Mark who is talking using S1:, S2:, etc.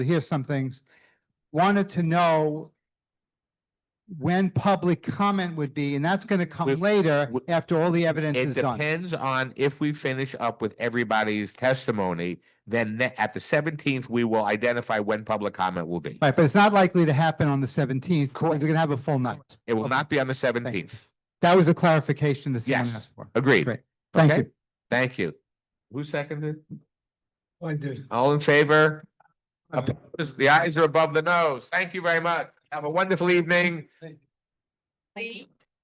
S1: to hear some things, wanted to know when public comment would be, and that's gonna come
S2: With-
S1: later
S2: with-
S1: after all the evidence
S2: It
S1: is done.
S2: depends on if we finish up with everybody's testimony, then ne- at the seventeenth, we will identify when public comment will be.
S1: Right, but it's not likely to happen on the seventeenth, because we're gonna have a full night.
S2: It will
S1: Okay.
S2: not be on the seventeenth.
S1: That was a clarification that someone
S2: Yes.
S1: asked for.
S2: Agreed.
S1: Great. Thank
S2: Okay.
S1: you.
S2: Thank you. Who seconded?
S3: Oh, I did.
S2: All in favor?
S3: Aye.
S2: Opposed? The eyes are above the nose. Thank you very much. Have a wonderful evening.
S4: Thank you.